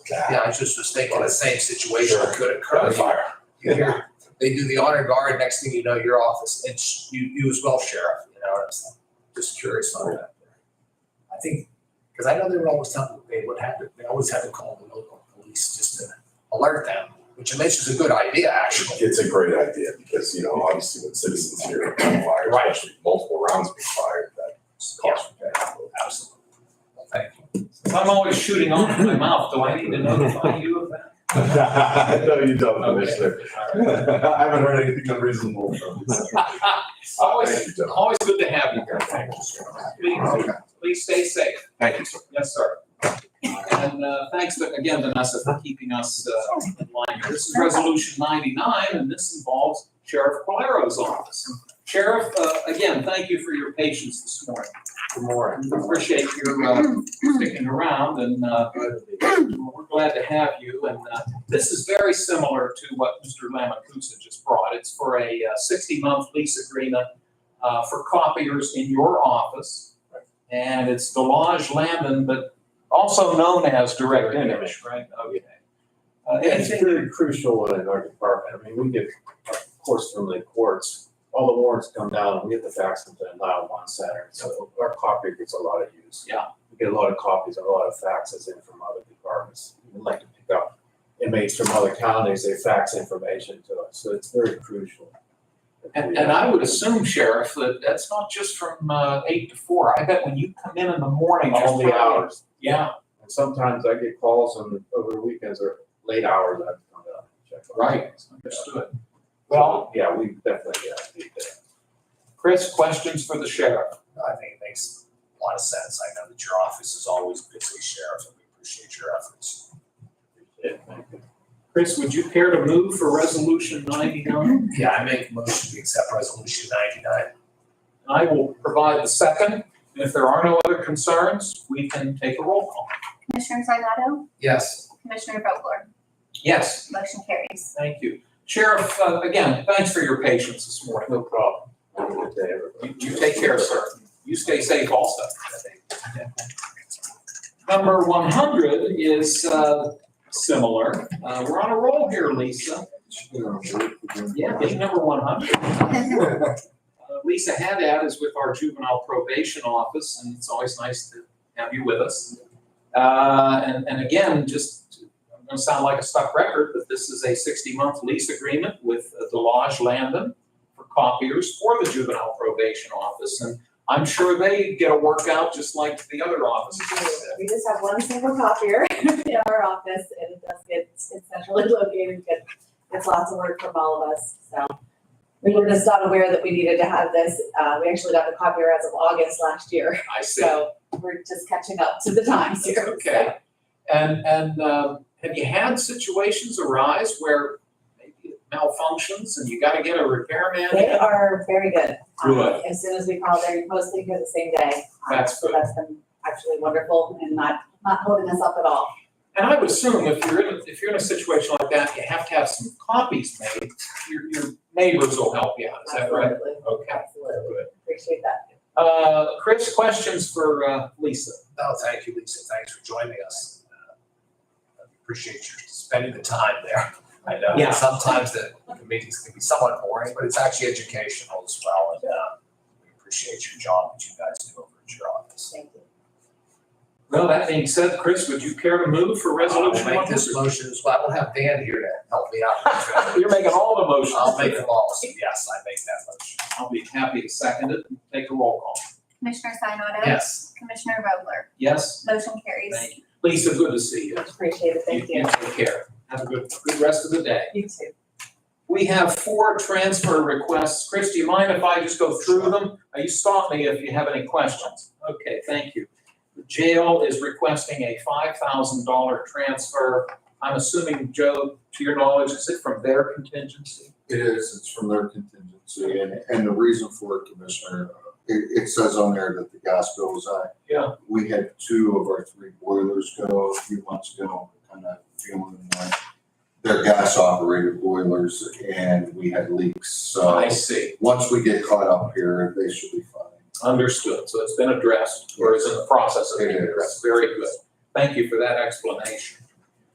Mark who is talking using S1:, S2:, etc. S1: Yeah, I was just was thinking the same situation
S2: Sure.
S1: could occur.
S2: Fire.
S1: You hear- They do the honor guard, next thing you know, your office, and sh- you, you as well, sheriff, you know, what I'm saying? just curious on that. I think, because I know they would always tell, they would have to, they always had to call the local police just to alert them, which I think is a good idea, actually.
S2: It's a great idea because, you know, obviously when citizens hear about fire,
S1: Right.
S2: especially multiple rounds being fired, that costs.
S1: Absolutely. Well, Thank you.
S3: If I'm always shooting off in my mouth, do I need to notify you of that?
S2: No, you don't, Commissioner.
S3: Okay.
S2: I
S3: All right.
S2: haven't heard anything unreasonable from you. Uh,
S3: Always,
S2: Thank you, John.
S3: always good to have you. Please,
S2: Okay.
S3: please stay safe.
S2: Thank you, sir.
S3: Yes, sir. And uh, thanks but again, Vanessa, for keeping us uh, in line. here. This is Resolution 99, and this involves Sheriff Calero's office. Sheriff, uh, again, thank you for your patience this morning.
S1: Good morning.
S3: We Appreciate your uh, sticking around, and uh, we're glad to have you. And uh, this is very similar to what Mr. Lamacusa just brought. It's for a uh, sixty-month lease agreement uh, for copiers in your office. And it's Delage Lamb, but also known as Direct Image, right? Okay. Uh,
S4: Yeah, It's
S3: anything-
S4: really crucial in our department. I mean, we get, of course, from the courts, all the warrants come down, and we get the fax them to Lyle on Saturday. So our copy gets a lot of use.
S3: Yeah.
S4: We get a lot of copies, a lot of faxes in from other departments. We'd like to pick up inmates from other counties, they fax information to us, so it's very crucial.
S3: And, and I would assume, Sheriff, that that's not just from uh, eight to four. I bet when you come in in the morning.
S4: All
S3: just-
S4: the hours.
S3: Yeah,
S4: And sometimes I get calls on, over the weekends or late hours, I have to come down and check. on
S3: right,
S4: things.
S3: understood. Well,
S4: Well, yeah, we definitely, yeah, need that.
S3: Chris, questions for the sheriff?
S1: I think it makes a lot of sense. I know that your office is always busy, Sheriff, and we appreciate your efforts.
S3: Chris, would you care to move for resolution ninety-nine?
S1: Yeah, I make a motion to accept resolution ninety-nine.
S3: I will provide the second, and if there are no other concerns, we can take a roll call.
S5: Commissioner Sinata,
S1: Yes.
S5: Commissioner Vogler,
S3: Yes,
S5: motion carries.
S3: thank you. Sheriff, uh, again, thanks for your patience this morning.
S4: No problem. Have a good day,
S3: You,
S4: everybody.
S3: you take care, sir. You stay safe also. Number one hundred is, uh, similar. Uh, we're on a roll here, Lisa. Yeah, being number one hundred. Uh, Lisa Haddad is with our juvenile probation office, and it's always nice to have you with us. Uh, And, and again, just, I'm going to sound like a stuck record, but this is a 60-month lease agreement with uh, Delage Landon for copiers for the juvenile probation office. And I'm sure they get a workout just like the other offices.
S6: We just have one single copier in our office and it does get, it's centrally located, but it's lots of work from all of us, so. We were just not aware that we needed to have this, uh, we actually got the copier as of August last year,
S3: I see.
S6: so we're just catching up to the times here. so.
S3: Okay. And, and um, have you had situations arise where maybe it malfunctions and you got to get a repairman?
S6: They are very good. Um,
S3: Good.
S6: As soon as we call, they're mostly here the same day. Um,
S3: That's
S6: So
S3: good.
S6: that's been actually wonderful and not, not holding us up at all.
S3: And I would assume if you're in, if you're in a situation like that, you have to have some copies made. Your, your neighbors will help you out, is that right?
S6: Absolutely,
S3: Okay.
S6: absolutely.
S3: Good.
S6: Appreciate that.
S3: Uh, Chris, questions for, uh, Lisa?
S1: No, Oh, thank you, Lisa. Thanks for joining us. Uh, Appreciate you spending the time there. I know
S3: Yeah.
S1: that sometimes the the meetings can be somewhat boring, but it's actually educational as well. And uh, we appreciate your job that you guys do over at your office.
S6: Thank you.
S3: Well, that being said, Chris, would you care to move for resolution
S1: I'll make this motion as well. I will have Dan here to help me out.
S3: 100? You're making all the motions.
S1: I'll make them all. So Yes, I make that motion.
S3: I'll be happy to second it and take a roll call.
S5: Commissioner Sinata,
S3: Yes.
S5: Commissioner Vogler,
S3: Yes?
S5: motion carries.
S3: Thank you. Lisa, good to see you.
S6: Appreciate it, thank you.
S3: Take care. Have a good, good rest of the day.
S6: You too.
S3: We have four transfer requests. Chris, do you mind if I just go through them? Uh, You stop me if you have any questions. Okay, thank you. The jail is requesting a five thousand dollar transfer. I'm assuming, Joe, to your knowledge, is it from their contingency?
S7: It is, it's from their contingency, and, and the reason for it, Commissioner, it, it says on there that the gas bill was high.
S3: Yeah.
S7: We had two of our three boilers go a few months ago, kind of feeling like they're gas operated boilers and we had leaks, so
S3: Oh, I see.
S7: once we get caught up here, they should be fine.
S3: Understood. So it's been addressed or is in the process of being
S7: It is.
S3: addressed. Very good. Thank you for that explanation.